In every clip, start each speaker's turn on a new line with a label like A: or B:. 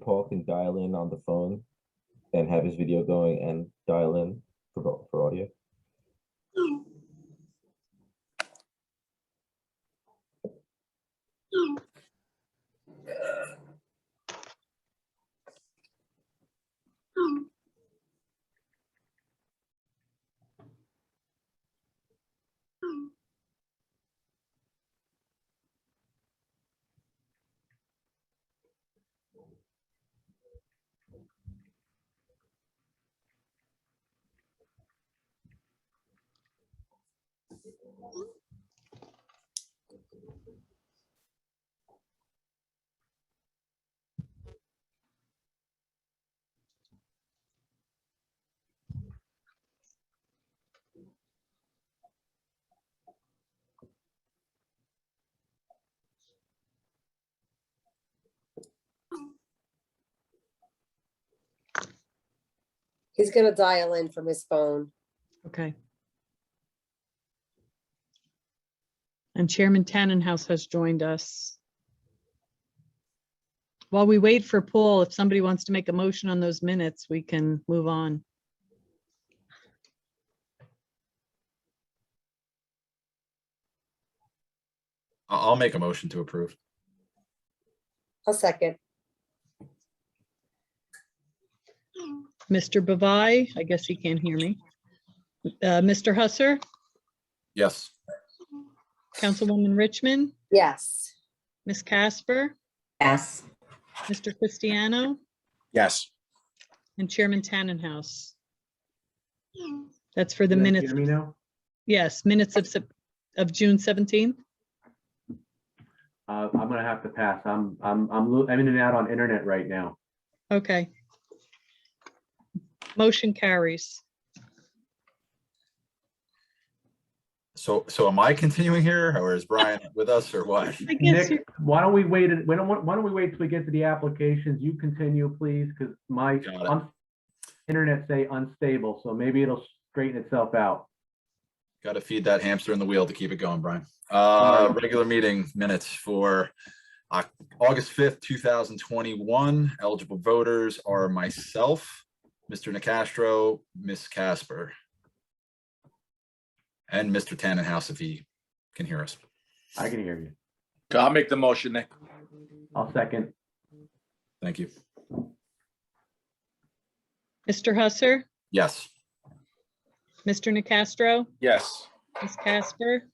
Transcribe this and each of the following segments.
A: Paul can dial in on the phone and have his video going and dial in for, vo- for audio.
B: He's gonna dial in from his phone.
C: Okay. And Chairman Tannenhouse has joined us. While we wait for Paul, if somebody wants to make a motion on those minutes, we can move on.
D: I- I'll make a motion to approve.
B: A second.
C: Mr. Bavai, I guess he can't hear me. Uh, Mr. Husser,
D: Yes.
C: Councilwoman Richmond,
B: Yes.
C: Ms. Casper,
E: Yes.
C: Mr. Cristiano,
D: Yes.
C: and Chairman Tannenhouse. That's for the
F: You guys
C: minutes,
F: Hear me now?
C: yes, minutes of, Sep- of June 17th.
F: Uh, I'm gonna have to pass. I'm, I'm, I'm, lo- I'm in and out on internet right now.
C: Okay. Motion carries.
D: So, so am I continuing here or is Brian with us or what?
C: I guess,
F: Nick, why don't we wait, and- why don't, why don't we wait till we get to the applications? You continue, please, because my
D: Got it.
F: un- internet say unstable, so maybe it'll straighten itself out.
D: Got to feed that hamster in the wheel to keep it going, Brian. Uh, regular meeting minutes for Oc- August fifth, two thousand twenty-one. Eligible voters are myself, Mr. Nacastro, Miss Casper, and Mr. Tannenhouse if he can hear us.
F: I can hear you.
G: I'll make the motion, Nick.
F: I'll second.
D: Thank you.
C: Mr. Husser,
D: Yes.
C: Mr. Nacastro,
G: Yes.
C: Ms. Casper,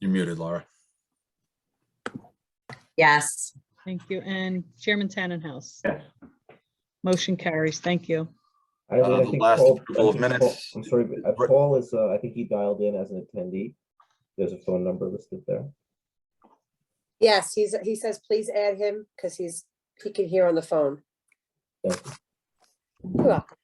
D: You're muted, Laura.
E: Yes.
C: thank you, and Chairman Tannenhouse.
F: Yes.
C: Motion carries, thank you.
A: I don't
D: Uh,
A: know, I
D: the
A: think
D: last
A: Paul- I
D: approval of
A: think Paul-
D: minutes.
A: I'm sorry, but, uh,
D: Right.
A: Paul is, uh, I think he dialed in as an attendee. There's a phone number listed there.
B: Yes, he's, he says, please add him because he's, he can hear on the phone.
A: Thank you.
B: You're welcome.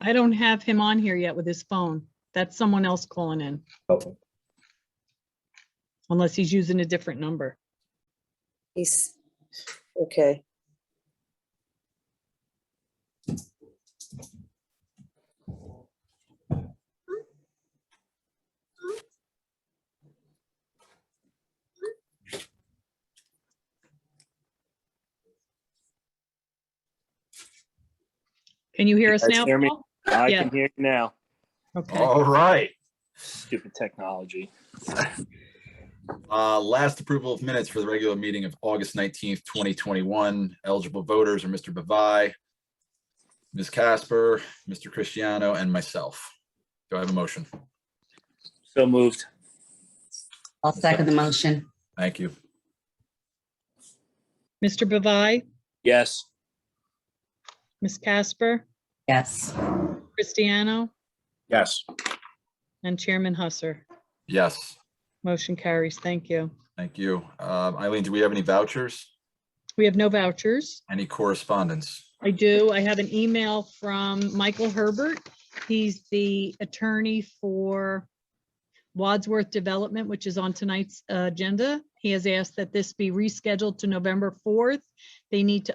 C: I don't have him on here yet with his phone. That's someone else calling in,
A: Okay,
C: unless he's using a different number.
B: He's, okay.
C: Can you hear us
G: guys
C: now?
G: hear me?
C: Paul?
G: I
C: Yeah.
G: can hear you now.
C: Okay,
D: All right.
G: Stupid technology.
D: Uh, last approval of minutes for the regular meeting of August nineteenth, twenty twenty-one. Eligible voters are Mr. Bavai, Ms. Casper, Mr. Cristiano, and myself. Do I have a motion?
G: So moved.
E: I'll second the motion.
D: Thank you.
C: Mr. Bavai,
G: Yes.
C: Ms. Casper,
E: Yes.
C: Cristiano,
G: Yes.
C: and Chairman Husser.
D: Yes,
C: Motion carries, thank you.
D: thank you. Um, Eileen, do we have any vouchers?
C: We have no vouchers.
D: Any correspondence?
C: I do. I have an email from Michael Herbert. He's the attorney for Wadsworth Development, which is on tonight's uh, agenda. He has asked that this be rescheduled to November 4th. They need to